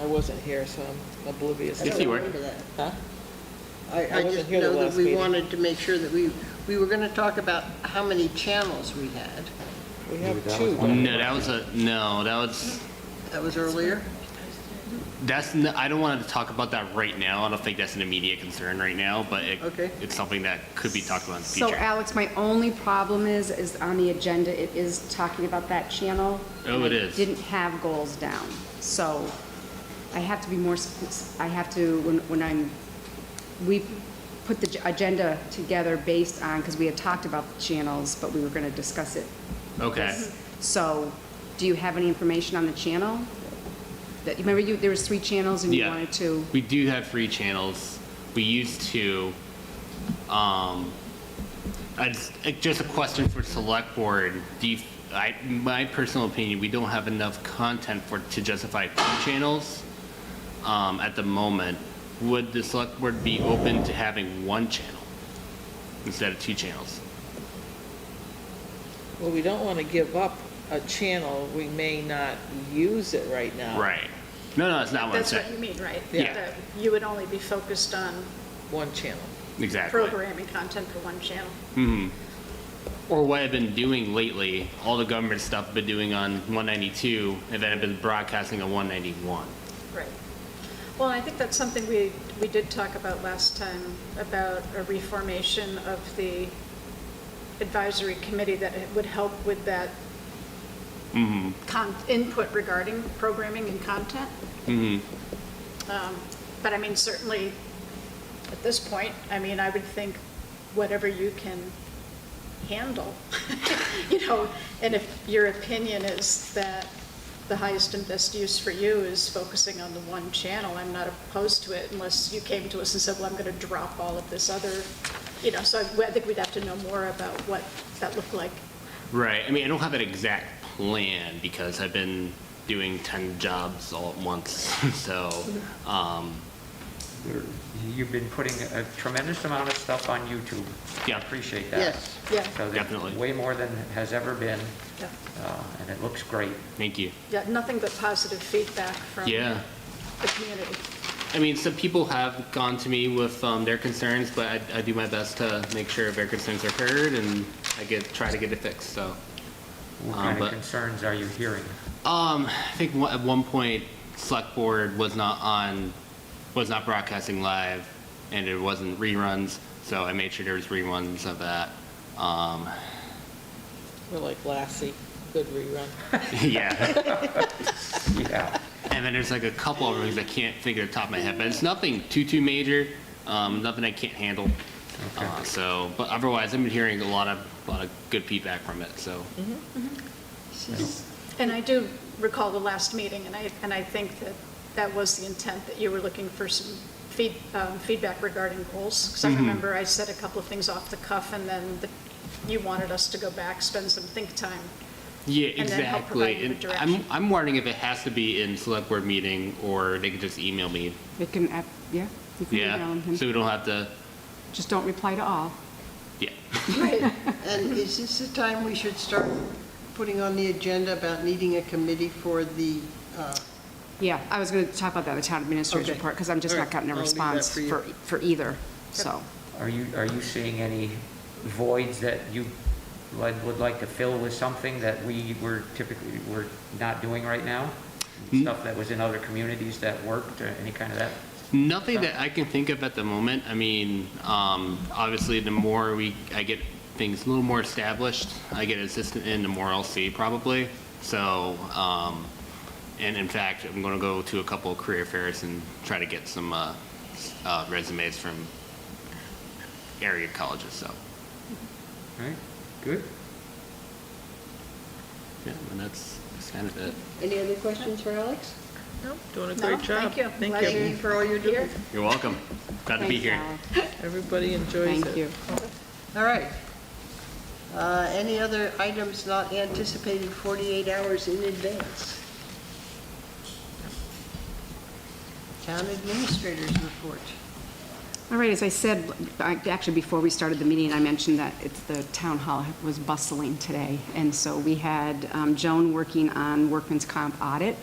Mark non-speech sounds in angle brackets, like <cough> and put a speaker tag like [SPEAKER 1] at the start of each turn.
[SPEAKER 1] I wasn't here, so I'm oblivious.
[SPEAKER 2] I
[SPEAKER 1] to
[SPEAKER 2] don't
[SPEAKER 1] it.
[SPEAKER 3] you were.
[SPEAKER 2] remember that.
[SPEAKER 1] Huh? I
[SPEAKER 2] I, I
[SPEAKER 1] wasn't
[SPEAKER 2] just
[SPEAKER 1] here the
[SPEAKER 2] know that
[SPEAKER 1] last
[SPEAKER 2] we
[SPEAKER 1] meeting.
[SPEAKER 2] wanted to make sure that we, we were going to talk about how many channels we had.
[SPEAKER 1] We
[SPEAKER 4] Maybe
[SPEAKER 1] have
[SPEAKER 4] that was
[SPEAKER 1] two.
[SPEAKER 4] one.
[SPEAKER 3] No, that was a, no, that was,
[SPEAKER 2] That was earlier.
[SPEAKER 3] that's, n- I don't want to talk about that right now. I don't think that's an immediate concern right now, but it,
[SPEAKER 2] Okay.
[SPEAKER 3] it's something that could be talked about in the
[SPEAKER 5] So
[SPEAKER 3] future.
[SPEAKER 5] Alex, my only problem is, is on the agenda, it is talking about that channel.
[SPEAKER 3] Oh,
[SPEAKER 5] and
[SPEAKER 3] it
[SPEAKER 5] I
[SPEAKER 3] is.
[SPEAKER 5] Didn't have goals down, so I have to be more, sp- I have to, when, when I'm, we put the j- agenda together based on, because we had talked about the channels, but we were gonna discuss it. Mm-hmm.
[SPEAKER 3] Okay.
[SPEAKER 5] So, do you have any information on the channel? That, you remember you, there was three channels and you
[SPEAKER 3] Yeah.
[SPEAKER 5] wanted to,
[SPEAKER 3] We do have three channels. We used to, um, I just, uh, just a question for select board. Do you, I, my personal opinion, we don't have enough content for, to justify two channels, um, at the moment. Would the select board be open to having one channel instead of two channels?
[SPEAKER 1] Well, we don't want to give up a channel. We may not use it right now.
[SPEAKER 3] Right. No, no, that's not what I'm
[SPEAKER 6] That's what you
[SPEAKER 3] saying.
[SPEAKER 6] mean, right?
[SPEAKER 3] Yeah.
[SPEAKER 6] That You would only be focused on
[SPEAKER 1] One channel.
[SPEAKER 3] Exactly.
[SPEAKER 6] programming content for one channel.
[SPEAKER 3] or what I've been doing lately, all the government stuff I've been doing on 192, and then I've been broadcasting on 191.
[SPEAKER 6] Right. Well, I think that's something we, we did talk about last time, about a reformation of the advisory committee that it would help with that con, input regarding programming and content. Um, But I mean, certainly, at this point, I mean, I would think whatever you can handle, <laughs> you know, and if your opinion is that the highest and best use for you is focusing on the one channel, I'm not opposed to it unless you came to us and said, well, I'm going to drop all of this other, you know, so I I think we'd have to know more about what that looked like.
[SPEAKER 3] Right. I mean, I don't have an exact plan because I've been doing 10 jobs all at once. <laughs> so, um,
[SPEAKER 4] You're- You've been putting a tremendous amount of stuff on YouTube.
[SPEAKER 3] Yeah.
[SPEAKER 4] Appreciate that.
[SPEAKER 2] Yes.
[SPEAKER 6] Yeah,
[SPEAKER 4] So there's
[SPEAKER 3] Definitely.
[SPEAKER 4] Way more than has ever been,
[SPEAKER 6] yeah,
[SPEAKER 4] uh, and it looks great.
[SPEAKER 3] thank you.
[SPEAKER 6] yeah, nothing but positive feedback from
[SPEAKER 3] Yeah.
[SPEAKER 6] the community.
[SPEAKER 3] I mean, some people have gone to me with um, their concerns, but I, I do my best to make sure their concerns are heard and I get try to get it fixed. So,
[SPEAKER 4] What
[SPEAKER 3] Um,
[SPEAKER 4] kind
[SPEAKER 3] but-
[SPEAKER 4] of concerns are you hearing?
[SPEAKER 3] Um, I think one- at one point, select board was not on, was not broadcasting live, and it wasn't reruns, so I made sure there was reruns of that. Um, <laughs>
[SPEAKER 1] We're like Lassie, good rerun.
[SPEAKER 6] <laughs>
[SPEAKER 3] yeah,
[SPEAKER 4] Yeah.
[SPEAKER 3] and then there's like a couple of things I can't figure off the top of my head, but it's nothing too, too major, um, nothing I can't handle. Uh, so, but otherwise, I've been hearing a lot of, a lot of good feedback from it, so.
[SPEAKER 6] Mm-hmm. And I do recall the last meeting, and I, and I think that that was the intent, that you were looking for some feed, um, feedback regarding goals. Because I remember I said a couple of things off the cuff, and then the- you wanted us to go back, spend some think time.
[SPEAKER 3] Yeah,
[SPEAKER 6] and then help
[SPEAKER 3] exactly.
[SPEAKER 6] provide you with
[SPEAKER 3] And I'm, I'm wondering if it has to be in select board meeting, or they could just email me,
[SPEAKER 5] it can, app- yeah? you can email
[SPEAKER 3] yeah,
[SPEAKER 5] him.
[SPEAKER 3] so we don't have to.
[SPEAKER 5] Just don't reply to all.
[SPEAKER 3] Yeah.
[SPEAKER 2] <laughs>
[SPEAKER 6] Right.
[SPEAKER 2] And is this the time we should start putting on the agenda about needing a committee for the, uh,
[SPEAKER 5] Yeah, I was going to talk about that, the town administrator's
[SPEAKER 2] Okay.
[SPEAKER 5] report, because I'm just
[SPEAKER 2] All
[SPEAKER 5] not
[SPEAKER 2] right,
[SPEAKER 5] gotten a
[SPEAKER 2] I'll leave that
[SPEAKER 5] response
[SPEAKER 2] for you.
[SPEAKER 5] for, for either, so.
[SPEAKER 4] Are you, are you seeing any voids that you would would like to fill with something that we were typically, we're not doing right now? Stuff that was in other communities that worked, or any kind of that?
[SPEAKER 3] Nothing that I can think of at the moment. I mean, um, obviously, the more we, I get things a little more established, I get assistant in, the more I'll see probably. So, um, and in fact, I'm going to go to a couple of career fairs and try to get some, uh, s- uh, resumes from area colleges, so.
[SPEAKER 4] All right, good.
[SPEAKER 3] Yeah, and that's, that's kind of it.
[SPEAKER 2] any other questions for Alex?
[SPEAKER 1] No, doing a
[SPEAKER 6] No,
[SPEAKER 1] great job.
[SPEAKER 6] thank you. Glad
[SPEAKER 2] Thank you for all you're doing.
[SPEAKER 3] You're welcome. Glad to be
[SPEAKER 5] Thanks,
[SPEAKER 3] here.
[SPEAKER 5] Alex.
[SPEAKER 1] Everybody enjoys it.
[SPEAKER 5] Thank you.
[SPEAKER 2] All right. Uh, Any other items not anticipated 48 hours in advance? Town administrators report.
[SPEAKER 5] All right, as I said, I- actually, before we started the meeting, I mentioned that it's, the town hall was bustling today. And so we had um, Joan working on workman's comp audit.